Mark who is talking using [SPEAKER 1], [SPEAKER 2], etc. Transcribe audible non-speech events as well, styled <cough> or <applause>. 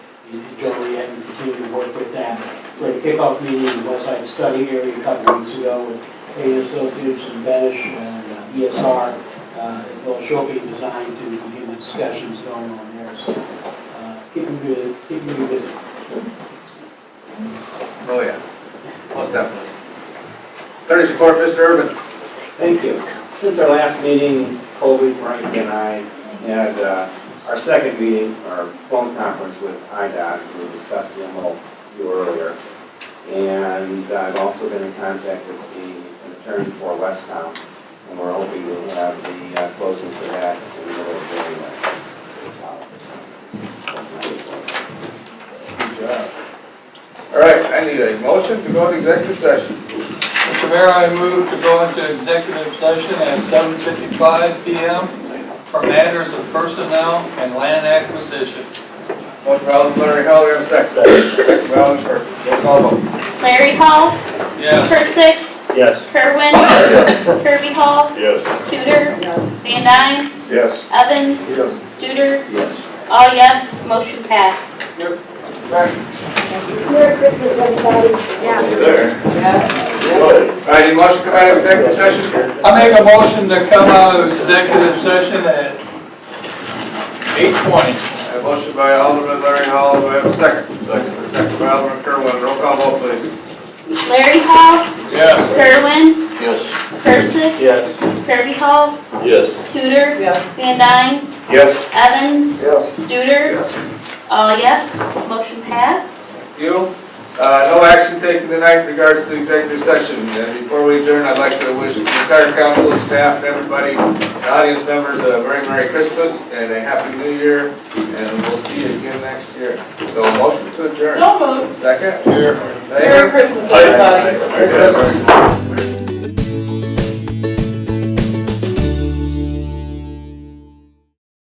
[SPEAKER 1] Joey and continue to work with that. We had a kickoff meeting in West Side Study area a couple weeks ago with A Associates and Benish and uh, ESR, uh, as well as Shopee Design to begin the discussions going on there. So uh, keeping you, keeping you busy.
[SPEAKER 2] Oh, yeah, most definitely. Attorney's report, Mr. Urban.
[SPEAKER 3] Thank you. Since our last meeting, Colby, Frank, and I had uh, our second meeting, our phone conference with IDOT, we discussed the MOU earlier. And I've also been in contact with the an attorney for Westtown, and we're hoping to have the uh, closing for that in the middle of January.
[SPEAKER 2] All right, I need a motion to go into executive session.
[SPEAKER 4] Mr. Mayor, I move to go into executive session at 7:55 PM for matters of personnel and land acquisition.
[SPEAKER 2] Motion by Alderman Larry Hall, we have a second. Second by Alderman Schwartz, roll call vote.
[SPEAKER 5] Larry Hall,
[SPEAKER 4] Yes.
[SPEAKER 5] Percy,
[SPEAKER 6] Yes. <coughs>
[SPEAKER 5] Kerwin, Kirby Hall,
[SPEAKER 6] Yes.
[SPEAKER 5] Tudor, Van Dyne,
[SPEAKER 6] Yes.
[SPEAKER 5] Evans,
[SPEAKER 2] Yes.
[SPEAKER 5] Studer,
[SPEAKER 6] Yes.
[SPEAKER 5] all yes, motion passed.
[SPEAKER 7] Merry Christmas, everybody. Yeah.
[SPEAKER 6] There.
[SPEAKER 2] All right, any motion to come out of executive session?
[SPEAKER 4] I make a motion to come out of executive session at 8:20.
[SPEAKER 2] A motion by Alderman Larry Hall, we have a second. Second. Second by Alderman Kerwin, roll call vote, please.
[SPEAKER 5] Larry Hall,
[SPEAKER 4] Yes.
[SPEAKER 5] Kerwin,
[SPEAKER 6] Yes.
[SPEAKER 5] Percy,
[SPEAKER 6] Yes.
[SPEAKER 5] Kirby Hall,
[SPEAKER 6] Yes.
[SPEAKER 5] Tudor, Van Dyne,
[SPEAKER 2] Yes.
[SPEAKER 5] Evans,
[SPEAKER 2] Yes.
[SPEAKER 5] Studer,
[SPEAKER 2] Yes.
[SPEAKER 5] all yes, motion passed.
[SPEAKER 2] You, uh, no action taken tonight in regards to executive session. And before we adjourn, I'd like to wish the entire council, staff, everybody, the audience members a very Merry Christmas and a Happy New Year, and we'll see you again next year. So motion to adjourn.
[SPEAKER 8] So moved.
[SPEAKER 2] Second? Here.
[SPEAKER 8] Merry Christmas, everybody.
[SPEAKER 2] Merry Christmas.